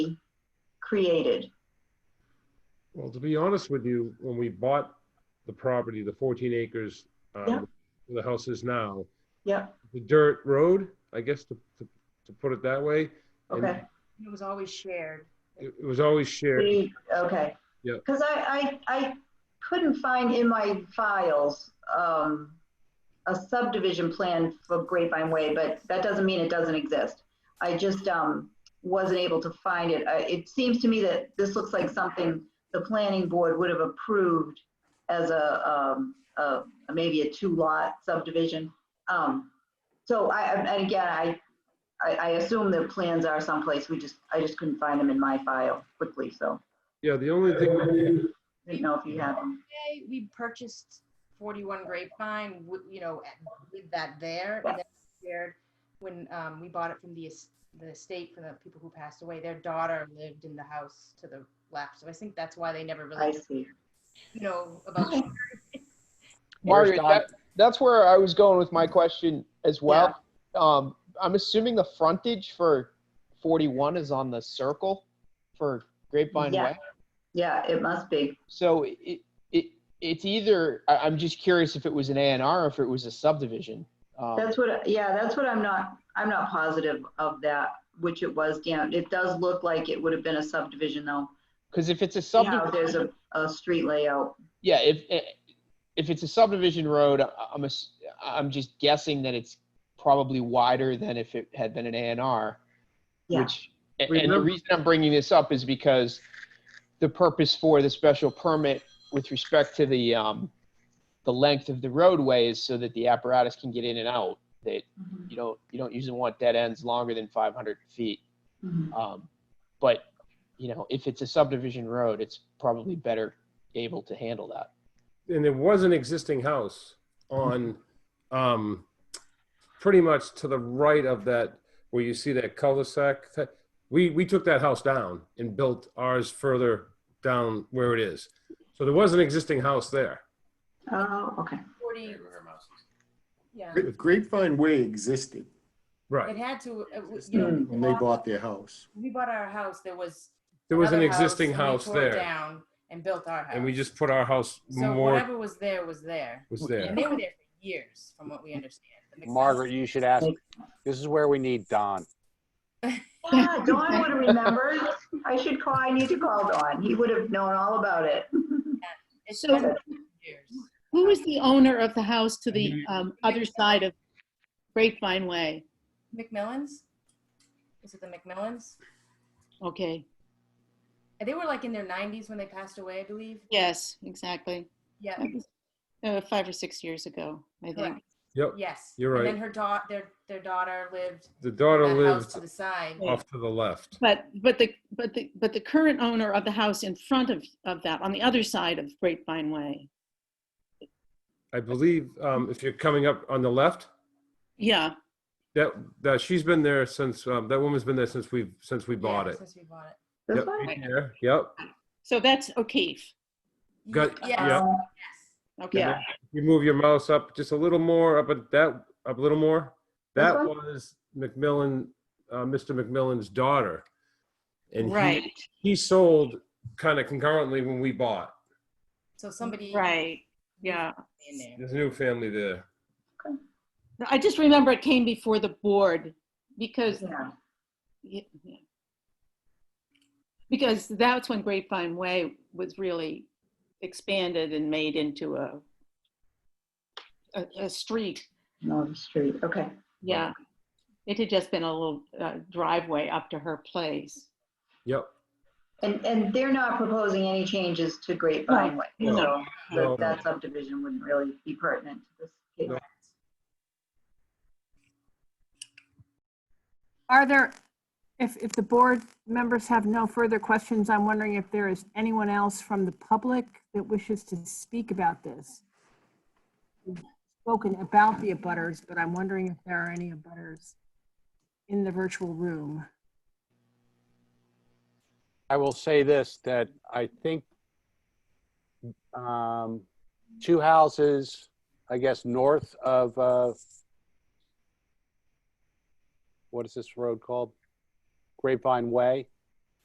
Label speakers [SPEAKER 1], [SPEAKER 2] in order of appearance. [SPEAKER 1] created?
[SPEAKER 2] Well, to be honest with you, when we bought the property, the 14 acres, um,
[SPEAKER 1] Yeah.
[SPEAKER 2] where the house is now,
[SPEAKER 1] Yep,
[SPEAKER 2] the dirt road, I guess to, to, to put it that way, And-
[SPEAKER 1] okay.
[SPEAKER 3] It was always shared.
[SPEAKER 2] it, it was always shared.
[SPEAKER 1] We- Okay.
[SPEAKER 2] Yeah.
[SPEAKER 1] Because I, I, I couldn't find in my files, um, a subdivision plan for Grapevine Way, but that doesn't mean it doesn't exist. I just, um, wasn't able to find it. I, it seems to me that this looks like something the planning board would have approved as a, um, a, maybe a two-lot subdivision. Um, so I, I- and again, I, I, I assume the plans are someplace, we just, I just couldn't find them in my file quickly, so
[SPEAKER 2] Yeah, the only thing,
[SPEAKER 1] didn't know if you had them.
[SPEAKER 3] Okay, we purchased 41 Grapevine, wi- you know, at- with that there. and then shared When um, we bought it from the es- the estate, from the people who passed away, their daughter lived in the house to the left. So I think that's why they never
[SPEAKER 1] I
[SPEAKER 3] really,
[SPEAKER 1] see.
[SPEAKER 3] you know, about.
[SPEAKER 4] Margaret,
[SPEAKER 5] Here's Don.
[SPEAKER 4] that, that's where I was going with my question as well. Um, I'm assuming the frontage for 41 is on the circle for Grapevine
[SPEAKER 1] Yeah.
[SPEAKER 4] Way.
[SPEAKER 1] Yeah, it must be.
[SPEAKER 4] So it, it it's either I, I'm just curious if it was an A and R or if it was a subdivision. Um,
[SPEAKER 1] That's what, yeah, that's what I'm not, I'm not positive of that, which it was down. It does look like it would have been a subdivision though.
[SPEAKER 4] Because if it's a
[SPEAKER 1] See how There's
[SPEAKER 4] subdivision,
[SPEAKER 1] a, a street layout.
[SPEAKER 4] yeah, if eh, if it's a subdivision road, I- I'm ass- I'm just guessing that it's probably wider than if it had been an A and R.
[SPEAKER 1] Yeah.
[SPEAKER 4] Which a- and the
[SPEAKER 2] Remember-
[SPEAKER 4] reason I'm bringing this up is because the purpose for the special permit with respect to the um the length of the roadway is so that the apparatus can get in and out. That
[SPEAKER 1] Mhm,
[SPEAKER 4] you don't you don't usually want dead ends longer than 500 feet.
[SPEAKER 1] mhm.
[SPEAKER 4] Um, but, you know, if it's a subdivision road, it's probably better able to handle that.
[SPEAKER 2] and there was an existing house on, um, pretty much to the right of that, where you see that cul-de-sac. type- We, we took that house down and built ours further down where it is. So there was an existing house there.
[SPEAKER 1] Oh, okay.
[SPEAKER 3] 40, yeah.
[SPEAKER 6] If Grapevine Way existed
[SPEAKER 3] It
[SPEAKER 2] Right.
[SPEAKER 3] had to, it w- you know.
[SPEAKER 2] Mm,
[SPEAKER 6] when they bought their house.
[SPEAKER 3] We bought our house, there was.
[SPEAKER 2] There was an
[SPEAKER 3] another
[SPEAKER 2] existing
[SPEAKER 3] and we
[SPEAKER 2] house
[SPEAKER 3] tore it
[SPEAKER 2] there.
[SPEAKER 3] Down and built our house.
[SPEAKER 2] And we just put our house
[SPEAKER 3] So
[SPEAKER 2] more,
[SPEAKER 3] whatever was there was there.
[SPEAKER 2] was there.
[SPEAKER 3] And they were there for years, from what we understand. That makes sense.
[SPEAKER 5] Margaret, you should ask. This is where we need Don.
[SPEAKER 1] Yeah, Dawn would have remembered. I should call, I need to call Dawn. He would have known all about it.
[SPEAKER 3] It's
[SPEAKER 7] So-
[SPEAKER 3] been years.
[SPEAKER 7] Who was the owner of the house to the um, other side of Grapevine Way?
[SPEAKER 3] McMillan's? Is it the McMillan's?
[SPEAKER 7] Okay,
[SPEAKER 3] And They were like in their nineties when they passed away, I believe.
[SPEAKER 7] yes, exactly.
[SPEAKER 3] Yeah,
[SPEAKER 7] That was, uh, Five or six years ago, I think.
[SPEAKER 3] correct.
[SPEAKER 2] Yep,
[SPEAKER 3] Yes.
[SPEAKER 2] You're
[SPEAKER 3] And
[SPEAKER 2] right.
[SPEAKER 3] then her daughter, their, their daughter lived.
[SPEAKER 2] the
[SPEAKER 3] in
[SPEAKER 2] daughter
[SPEAKER 3] that house
[SPEAKER 2] lived
[SPEAKER 3] To the side.
[SPEAKER 2] off to the left.
[SPEAKER 7] But, but the, but the, but the current owner of the house in front of, of that, on the other side of Grapevine Way.
[SPEAKER 2] I believe um, if you're coming up on the left,
[SPEAKER 7] Yeah,
[SPEAKER 2] that, that she's been there since, um, that woman's been there since we've, since we
[SPEAKER 3] Yeah,
[SPEAKER 2] bought it.
[SPEAKER 3] Since we bought it.
[SPEAKER 1] This
[SPEAKER 2] Yep,
[SPEAKER 1] one?
[SPEAKER 2] been there, Yep.
[SPEAKER 7] so that's O'Keefe.
[SPEAKER 2] Got-
[SPEAKER 3] Yes,
[SPEAKER 2] yeah.
[SPEAKER 1] Um,
[SPEAKER 3] yes.
[SPEAKER 7] Okay,
[SPEAKER 1] Yeah,
[SPEAKER 2] You move your mouse up just a little more, up at that, up a little more.
[SPEAKER 1] This
[SPEAKER 2] That
[SPEAKER 1] one?
[SPEAKER 2] was McMillan, uh, Mr. McMillan's daughter. And he-
[SPEAKER 7] right,
[SPEAKER 2] He sold kind of concurrently when we bought.
[SPEAKER 3] So somebody.
[SPEAKER 7] right, yeah.
[SPEAKER 3] In there.
[SPEAKER 2] There's a new family there.
[SPEAKER 7] I just remember it came before the board because
[SPEAKER 1] yeah.
[SPEAKER 7] Yeah, yeah. Because that's when Grapevine Way was really expanded and made into a, a, a street.
[SPEAKER 1] No, the street, okay.
[SPEAKER 7] Yeah. It had just been a little uh, driveway up to her place.
[SPEAKER 2] Yep.
[SPEAKER 1] And, and they're not proposing any changes to Grapevine Way,
[SPEAKER 7] No.
[SPEAKER 1] so
[SPEAKER 2] No.
[SPEAKER 1] that subdivision wouldn't really be pertinent to this
[SPEAKER 2] No.
[SPEAKER 1] case.
[SPEAKER 8] Are there, if, if the board members have no further questions, I'm wondering if there is anyone else from the public that wishes to speak about this? We've Spoken about the abutters, but I'm wondering if there are any abutters in the virtual room.
[SPEAKER 5] I will say this, that I think um, two houses, I guess, north of, uh, what is this road called? Grapevine Way.